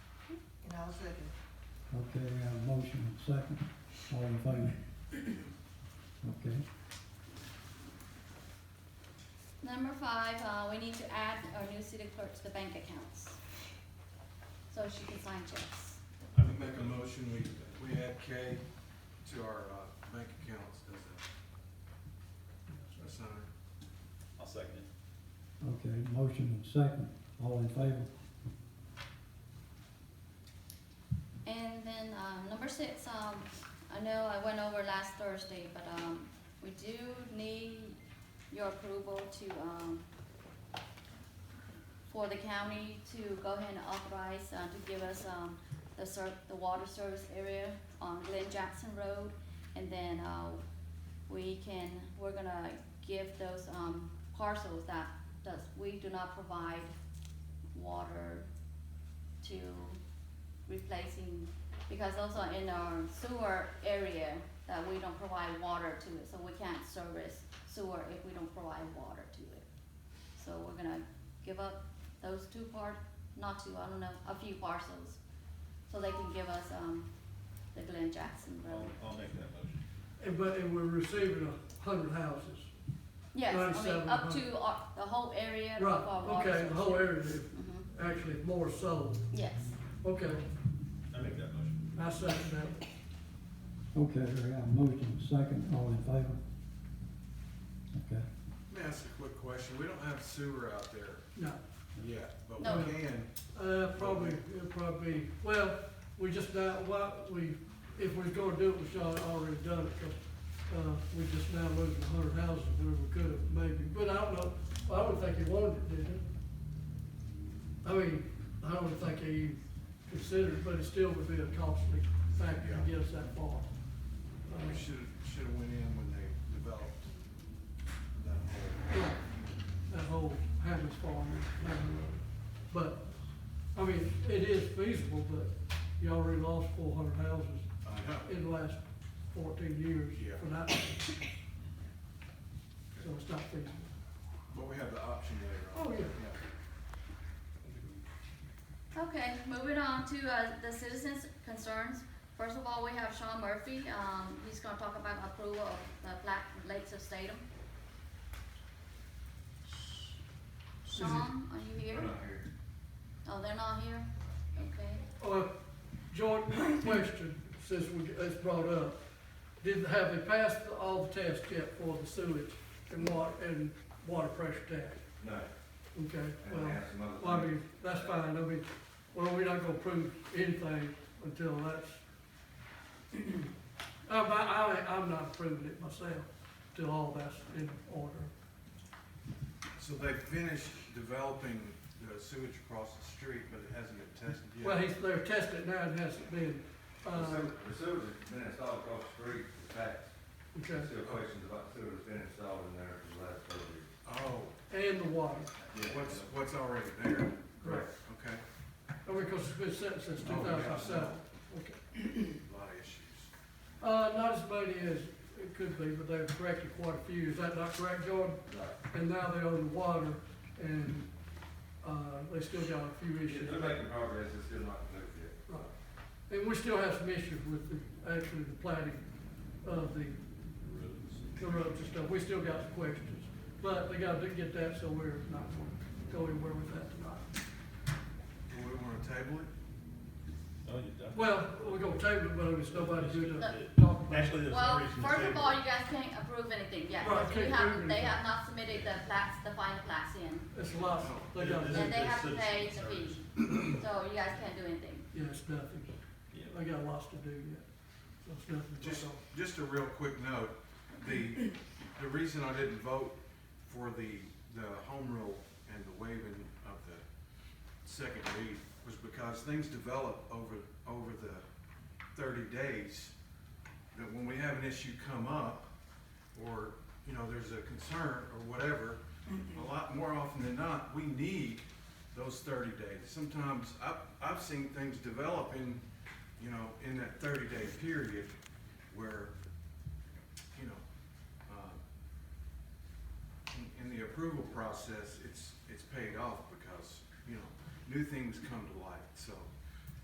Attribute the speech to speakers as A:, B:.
A: And I'll second.
B: Okay, we have a motion and second, all in favor? Okay,
C: Number five, uh, we need to add our new city clerk to the bank accounts. So she can sign checks.
D: I would make a motion, we, we add K to our, uh, bank accounts as a, as a signer.
E: I'll second it.
B: okay, motion and second, all in favor?
C: And then, um, number six, um, I know I went over last Thursday, but, um, we do need your approval to, um, for the county to go ahead and authorize, uh, to give us, um, the ser- the water service area on Glen Jackson Road. And then, uh, we can, we're gonna give those, um, parcels that does, we do not provide water to replacing, because those are in our sewer area that we don't provide water to it, so we can't service sewer if we don't provide water to it. So we're gonna give up those two part, not two, I don't know, a few parcels, so they can give us, um, the Glen Jackson
E: I'll,
C: Road.
E: I'll make that motion.
F: And, but, and we're receiving a hundred houses.
C: Yes, I mean, up
F: 97,
C: to our, the whole area of
F: Right,
C: our water.
F: okay, the whole
C: source.
F: area, is
C: Mhm,
F: actually more sold.
C: yes.
F: Okay,
E: I make that motion.
F: I second that.
B: Okay, we have a motion and second, all in favor? Okay,
D: Let me ask a quick question, we don't have sewer out there
F: No,
D: yet, but we
C: No.
D: can,
F: uh, probably, it'll probably, well, we just, now- why, we, if we're gonna do it, we should have already done it, 'cause, uh, we just now losing a hundred houses where we could have maybe, but I don't know, I don't think he wanted it, did he? I mean, I don't think he considered, but it still would be a costly factor to get us that far. I
D: we
F: mean,
D: should, should have went in when they developed that whole.
F: Yeah, that whole Hammond's Farm, Hammond Road. But, I mean, it is feasible, but you already lost four hundred houses
D: I know.
F: in the last fourteen years
D: Yeah.
F: for that. So it's not feasible.
D: But we have the option later on.
F: Oh, yeah.
C: Okay, moving on to, uh, the citizens' concerns. First of all, we have Sean Murphy, um, he's gonna talk about approval of the Black Lakes of Statham. Sean, are you here? Oh, they're not here? Okay.
F: Uh, Jordan, question, since we, it's brought up, did, have they passed all the tests yet for the sewage and water, and water pressure test?
G: No,
F: Okay,
G: and
F: well.
G: they have some other.
F: Well, I
G: things.
F: mean, that's fine, I mean, well, we're not gonna prove anything until that's. I'm, not- I, I, I'm not proving it myself till all that's in order.
D: So they finished developing the sewage across the street, but it hasn't been tested yet.
F: Well, he's, they're testing it now, it hasn't been,
G: The
F: uh,
G: sewer- the sewer's been installed across the street, in fact,
F: okay,
G: there's still questions about sewer's been installed in there for the last thirty years.
D: Oh,
F: and the water,
D: what's, what's already there?
F: correct,
D: Okay,
F: I mean, cause it's been set since two
D: Oh, yeah.
F: thousand seven, okay.
D: a lot of issues.
F: Uh, not as many as it could be, but they've corrected quite a few, is that not correct, Jordan?
G: Right.
F: And now they own the water, and, uh, they still got a few issues.
G: They're making progress, it's still not complete yet.
F: Right. And we still have some issues with the, actually the plating of the, the roads and stuff, we still got some questions. But they gotta do- get that, so we're not gonna go anywhere with that tonight.
D: Do we wanna table it?
E: Oh, you're done.
F: Well, we're gonna table it, but it's nobody good to talk about. it.
E: Actually, there's no
C: Well,
E: reason to
C: first of
E: table
C: all,
E: it.
C: you guys can't approve anything yet,
F: Right,
C: because we
F: can't
C: have,
F: approve
C: they
F: anything.
C: have not submitted the plats, the final plats in.
F: It's a lot, they got,
E: This is
C: And they
E: the
C: have to pay the
E: citizen
C: fee, so you guys can't do anything.
F: yeah, it's nothing,
E: Yeah.
F: they got lots to do yet, so it's nothing. to
D: Just,
F: talk
D: just a real quick note, the, the reason I didn't vote for the, the home rule and the waiving of the second read was because things develop over, over the thirty days. That when we have an issue come up, or, you know, there's a concern or whatever, a lot more often than not, we need those thirty days. Sometimes, I've, I've seen things develop in, you know, in that thirty day period where, you know, uh, in, in the approval process, it's, it's paid off because, you know, new things come to light, so